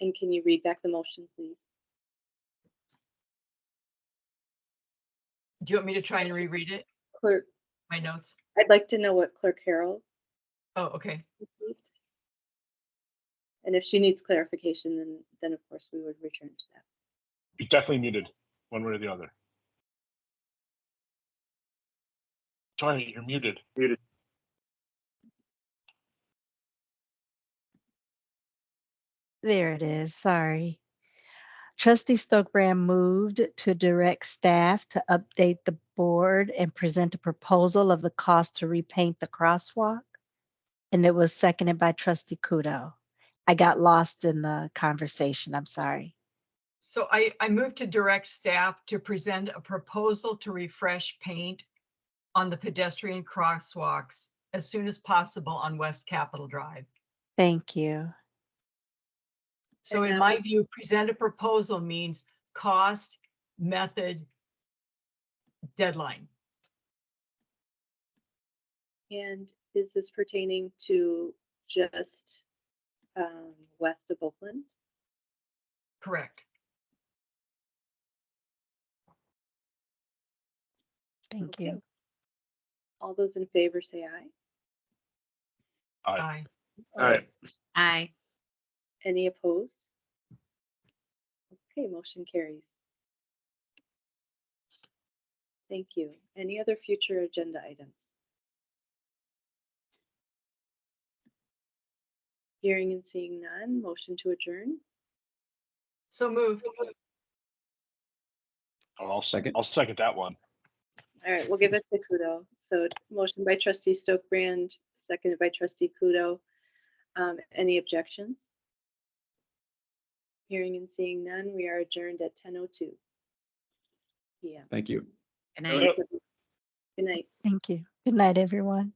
And can you read back the motion, please? Do you want me to try and reread it? Clerk, My notes? I'd like to know what Clerk Harrell Oh, okay. received. And if she needs clarification, then, then of course we would return to that. You're definitely muted, one way or the other. Tony, you're muted. Muted. There it is, sorry. Trustee Stokbrand moved to direct staff to update the board and present a proposal of the cost to repaint the crosswalk. And it was seconded by trustee Kudo. I got lost in the conversation, I'm sorry. So I, I moved to direct staff to present a proposal to refresh paint on the pedestrian crosswalks as soon as possible on West Capitol Drive. Thank you. So And in that my would- view, present a proposal means cost, method, deadline. And is this pertaining to just um, west of Oakland? Correct. Thank Okay. you. All those in favor say aye. Aye. Aye. All right, Aye. Any opposed? Okay, motion carries. Thank you. Any other future agenda items? Hearing and seeing none, motion to adjourn. So moved. I'll second, I'll second that one. All right, we'll give it to Kudo. So motion by trustee Stokbrand, seconded by trustee Kudo. Um, Any objections? Hearing and seeing none, we are adjourned at 10:02 PM. Thank you. Good Yep. night. Good night. Thank you. Good night, everyone.